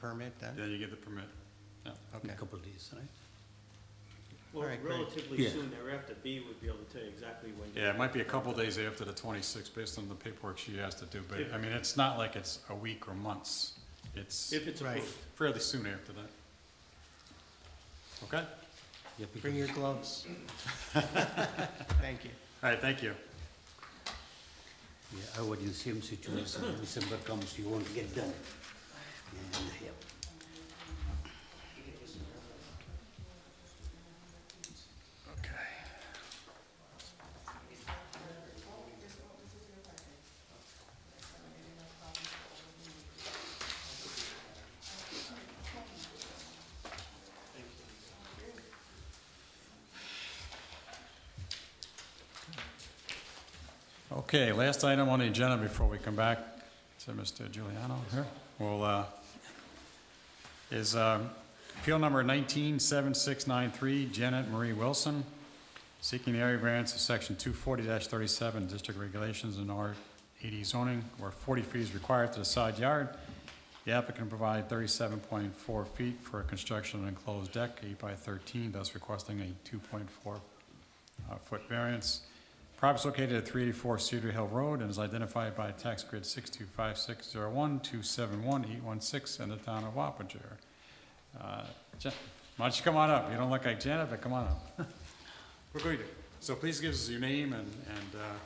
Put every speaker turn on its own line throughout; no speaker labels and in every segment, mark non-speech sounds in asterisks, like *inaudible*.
permit then?
Then you get the permit. Yeah.
Okay.
a couple of days, right?
Well,
All right, great.
relatively
Yeah.
soon thereafter, B would be able to tell you exactly when. you-
Yeah, it might be a couple days after the twenty-sixth, based on the paperwork she has to do, but, I mean, it's not like it's a week or months. It's
If it's
Right.
approved.
fairly soon after that. Okay?
Yeah,
Bring
because
your gloves. *laughs* Thank you.
All right, thank you.
yeah, I was in same situation, December comes, you won't get done. And, yeah.
Okay. Okay, last item on the agenda before we come back to Mr. Giuliano here. Well, uh, is um, appeal number 197693 Janet Marie Wilson, seeking the area variance of section 240-37 district regulations in R80 zoning, where 40 feet is required to the side yard. The applicant provided 37.4 feet for a construction of an enclosed deck, 8 by 13, thus requesting a 2.4 uh, foot variance. Property is located at 384 Cedar Hill Road and is identified by tax grid 625601271816816 in the town of Wappinger. Uh, Jan- Why don't you come on up? You don't look like Janet, but come on up. *laughs* We're going to, so please give us your name and, and, uh,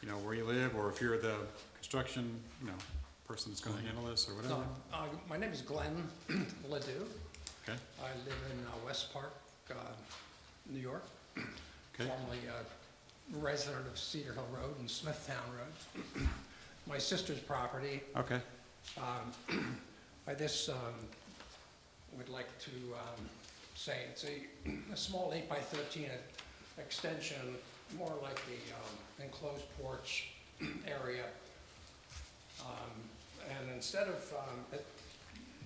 you know, where you live, or if you're the construction, you know, person that's gonna handle this, or whatever.
Uh, My name is Glenn *clears throat* Ledoux.
Okay,
I live in uh, West Park, uh, New York,
okay,
formerly a resident of Cedar Hill Road and Smithtown Road. *clears throat* My sister's property,
okay,
um, I just um, would like to um, say it's a, a small eight by thirteen extension, more like the um, enclosed porch area. Um, And instead of, um, it-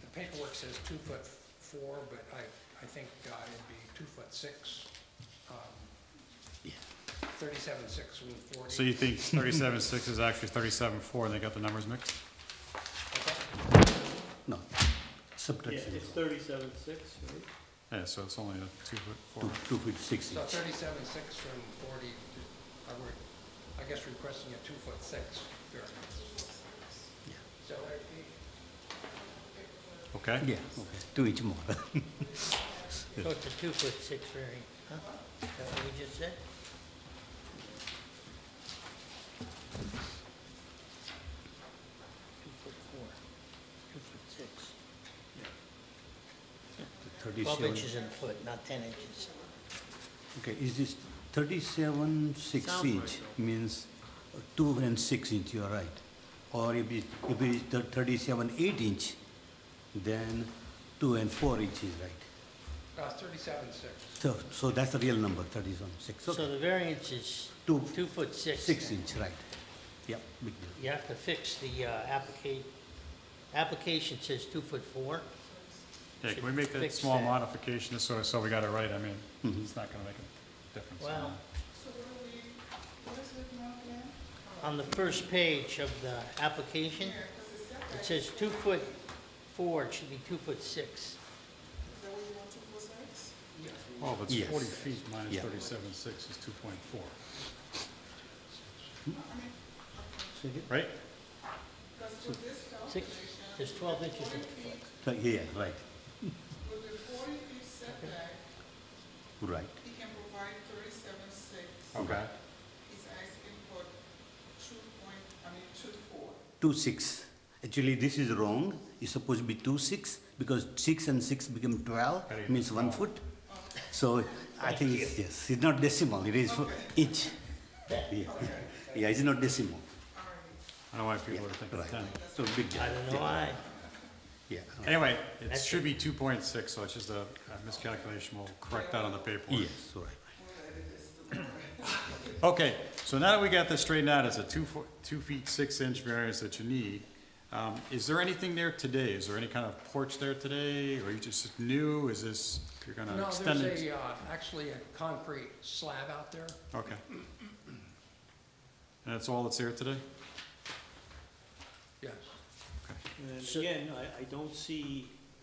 the paperwork says two foot four, but I, I think uh, it'd be two foot six. um,
Yeah.
Thirty-seven six and forty.
so you think 37.6 is actually 37.4, and they got the numbers mixed?
No,
Yeah,
subtraction,
it's thirty-seven six, right?
Yeah, so it's only a two foot
two,
four.
two feet six
So
inch.
thirty-seven six from forty, I were, I guess requesting a two-foot six variance.
Yeah.
So uh, it-
Okay?
Yeah, okay, two inch more.
So it's a two-foot six variance, huh? Is that what we just said? Two foot four, two foot six.
*laughs*
Twelve
Thirty-seven,
inches in a foot, not ten inches.
okay, is this thirty-seven, six
Sounds like
inch means uh, two and six inch, you are right. Or if it, if it is thir- thirty-seven, eight inch, then two and four inch is right.
uh, thirty-seven six.
So, so that's the real number, thirty-seven, six,
So
okay,
the variance is
Two-
two foot six.
six
then.
inch, right. Yeah, big deal.
You have to fix the uh, applica- application says two foot four.
Yeah, can we make that
Fix
small
that.
modification, just so, so we got it right, I mean, it's not gonna make a difference.
Well. On the first page of the application, it says two foot four, it should be two foot six.
Well, if Oh, it's
Yes.
forty feet minus
Yeah.
thirty-seven six is two point four,
So, yeah,
right?
Six, there's twelve inches in a foot.
so, yeah, right,
With the forty feet setback,
right.
he can provide thirty-seven six.
Okay.
He's asking for two point, I mean, two four.
Two six. Actually, this is wrong. It's supposed to be two six because six and six become twelve,
Very
means one foot. So I think it's, yes, it's not decimal. It is for inch. Yeah, yeah, it's not decimal.
I don't know why
Yeah,
people are thinking
right.
ten.
So big deal.
I don't know
Yeah,
why.
Yeah.
Anyway, it
That's
should be two point six, so it's just a a miscalculation, we'll correct that on the paperwork.
Yes, all right.
Okay, so now that we got this straightened out, it's a two foot, two feet, six inch variance that you need. Um, is there anything there today? Is there any kind of porch there today, or you just new, is this, you're gonna
No,
extend
there's
it?
a, uh, actually a concrete slab out there.
Okay. And that's all that's here today?
Yes.
And
So-
again, I, I don't see